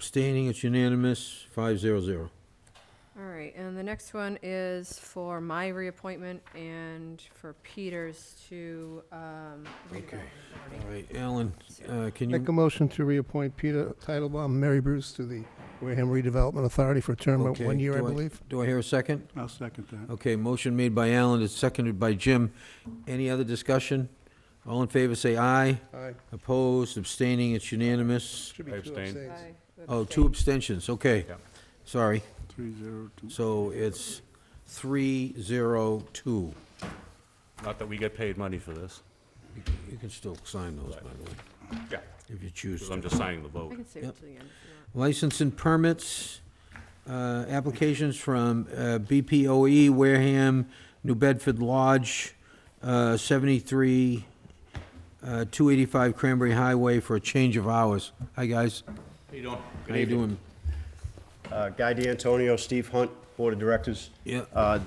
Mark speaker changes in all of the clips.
Speaker 1: Abstaining, it's unanimous, five zero zero.
Speaker 2: All right, and the next one is for my reappointment and for Peters to, um,
Speaker 1: Okay.
Speaker 2: redevelopment
Speaker 1: All
Speaker 2: authority.
Speaker 1: right, Alan, uh, can
Speaker 3: Make a
Speaker 1: you,
Speaker 3: motion to reappoint Peter Titlebaum, Mary Bruce to the Wareham Redevelopment Authority for a term of
Speaker 1: Okay,
Speaker 3: one year, I
Speaker 1: do I-
Speaker 3: believe.
Speaker 1: do I hear a second?
Speaker 4: I'll second that.
Speaker 1: Okay, motion made by Alan, it's seconded by Jim. Any other discussion? All in favor, say aye.
Speaker 3: Aye.
Speaker 1: Opposed, abstaining, it's unanimous.
Speaker 3: Should be
Speaker 5: I
Speaker 3: two
Speaker 5: abstain.
Speaker 3: abstains.
Speaker 2: I would
Speaker 1: Oh,
Speaker 2: abstain.
Speaker 1: two abstentions, okay.
Speaker 5: Yeah.
Speaker 1: Sorry,
Speaker 4: Three zero two.
Speaker 1: so it's three zero two.
Speaker 5: Not that we get paid money for this.
Speaker 1: You you can still sign those, by the way,
Speaker 5: Yeah.
Speaker 1: if you choose.
Speaker 5: Because I'm just signing the
Speaker 2: I
Speaker 5: vote.
Speaker 2: can save
Speaker 1: Yep.
Speaker 2: it to the end if you want.
Speaker 1: License and permits, uh, applications from uh, BPOE Wareham, New Bedford Lodge, uh, 73, uh, 285 Cranberry Highway for a change of hours. Hi, guys.
Speaker 5: How you doing?
Speaker 1: How you doing?
Speaker 6: Uh, Guy D'Antonio, Steve Hunt, Board of Directors.
Speaker 1: Yeah.
Speaker 6: Uh,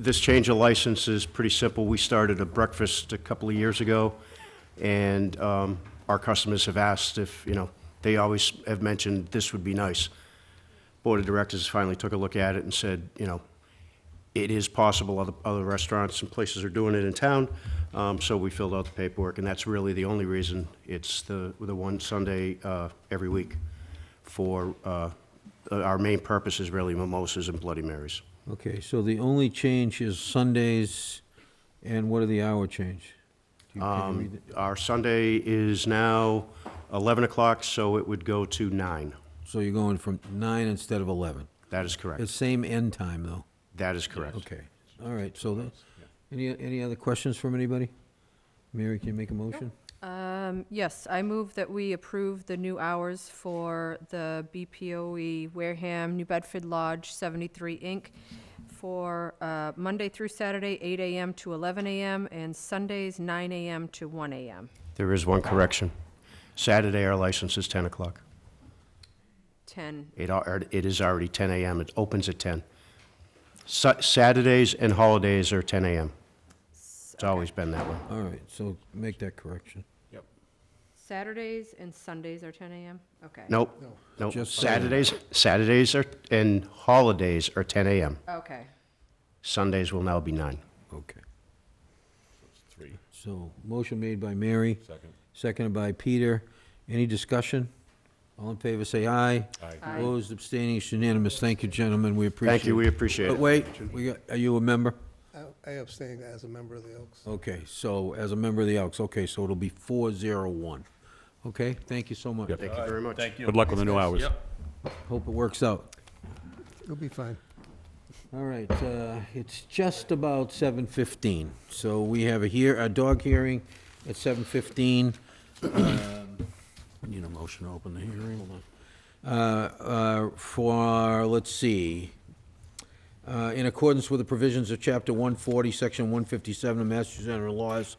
Speaker 6: This change of license is pretty simple. We started a breakfast a couple of years ago, and um, our customers have asked if, you know, they always have mentioned this would be nice. Board of Directors finally took a look at it and said, you know, it is possible, other, other restaurants and places are doing it in town, um, so we filled out the paperwork, and that's really the only reason. It's the, the one Sunday, uh, every week for, uh, our main purpose is really mimosas and Bloody Marys.
Speaker 1: Okay, so the only change is Sundays, and what are the hour change? Do you- can you read
Speaker 6: Um,
Speaker 1: it?
Speaker 6: our Sunday is now eleven o'clock, so it would go to nine.
Speaker 1: So you're going from 9 instead of 11?
Speaker 6: That is
Speaker 1: It's
Speaker 6: correct.
Speaker 1: same end time, though.
Speaker 6: That is correct.
Speaker 1: Okay, all right, so, the- any, any other questions from anybody? Mary, can you make a motion?
Speaker 2: Um, yes, I move that we approve the new hours for the BPOE E Wareham New Bedford Lodge 73 Inc. for uh, Monday through Saturday, 8 AM to 11 AM, and Sundays, 9 AM to 1 AM.
Speaker 6: There is one correction. Saturday, our license is ten o'clock.
Speaker 2: 10,
Speaker 6: It, al- er, it is already ten AM. It opens at ten. Sa- Saturdays and holidays are ten AM. It's always been that way.
Speaker 1: All right, so make that correction.
Speaker 5: Yep.
Speaker 2: Saturdays and Sundays are 10 AM? Okay.
Speaker 6: Nope, nope.
Speaker 1: Just-
Speaker 6: Saturdays, Saturdays are, and holidays are ten AM.
Speaker 2: Okay.
Speaker 6: Sundays will now be nine.
Speaker 1: Okay.
Speaker 5: Three,
Speaker 1: So, motion made by Mary,
Speaker 5: second.
Speaker 1: seconded by Peter. Any discussion? All in favor, say aye.
Speaker 5: Aye.
Speaker 2: Aye.
Speaker 1: Opposed, abstaining, it's unanimous. Thank you, gentlemen, we appreciate it.
Speaker 6: Thank you, we appreciate
Speaker 1: But
Speaker 6: it.
Speaker 1: wait, we got, are you a member?
Speaker 3: I I abstained as a member of the Elks.
Speaker 1: Okay, so, as a member of the Elks, okay, so it'll be four zero one. Okay, thank you so much.
Speaker 5: Yep.
Speaker 6: Thank you very much.
Speaker 5: Good luck with the new hours.
Speaker 1: Hope it works out.
Speaker 3: It'll be fine.
Speaker 1: All right, uh, it's just about 7:15, so we have a hear, a dog hearing at 7:15. Um, Need a motion to open the hearing, hold on. Uh, uh, For, let's see, uh, in accordance with the provisions of Chapter 140, Section 157 of Massachusetts General Laws.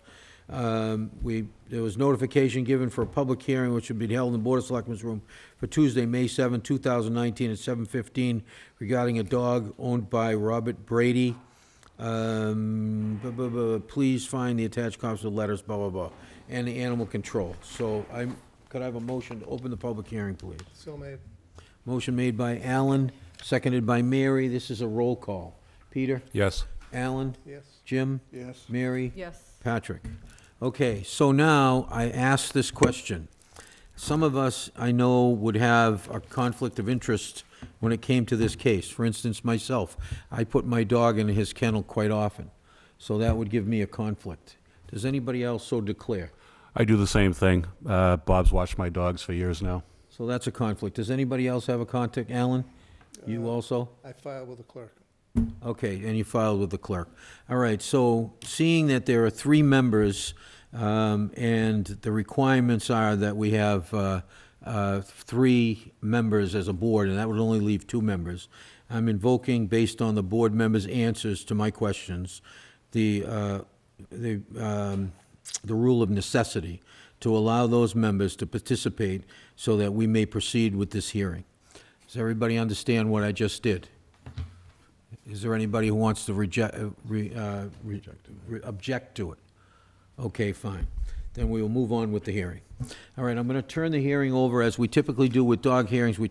Speaker 1: um, We, there was notification given for a public hearing which would be held in the Board of Selectmen's room for Tuesday, May 7, 2019, at 7:15 regarding a dog owned by Robert Brady. Um, bu- bu- bu- Please find the attached copies of letters, blah, blah, blah, and the animal control. So I, could I have a motion to open the public hearing, please?
Speaker 3: So may,
Speaker 1: Motion made by Alan, seconded by Mary. This is a roll call. Peter?
Speaker 5: Yes.
Speaker 1: Alan?
Speaker 3: yes.
Speaker 1: Jim?
Speaker 4: Yes.
Speaker 1: Mary?
Speaker 2: Yes.
Speaker 1: Patrick? Okay, so now I ask this question. Some of us, I know, would have a conflict of interest when it came to this case. For instance, myself, I put my dog in his kennel quite often, so that would give me a conflict. Does anybody else so declare?
Speaker 5: I do the same thing. Uh, Bob's watched my dogs for years now.
Speaker 1: So that's a conflict. Does anybody else have a contact? Alan? You also?
Speaker 3: I filed with the clerk.
Speaker 1: Okay, and you filed with the clerk. All right, so seeing that there are three members, um, and the requirements are that we have uh, uh, three members as a board, and that would only leave two members, I'm invoking, based on the board members' answers to my questions, the, uh, the um, the rule of necessity to allow those members to participate so that we may proceed with this hearing. Does everybody understand what I just did? Is there anybody who wants to reject, uh, re- uh, re- re- object to it? Okay, fine. Then we will move on with the hearing. All right, I'm going to turn the hearing over, as we typically do with dog hearings, we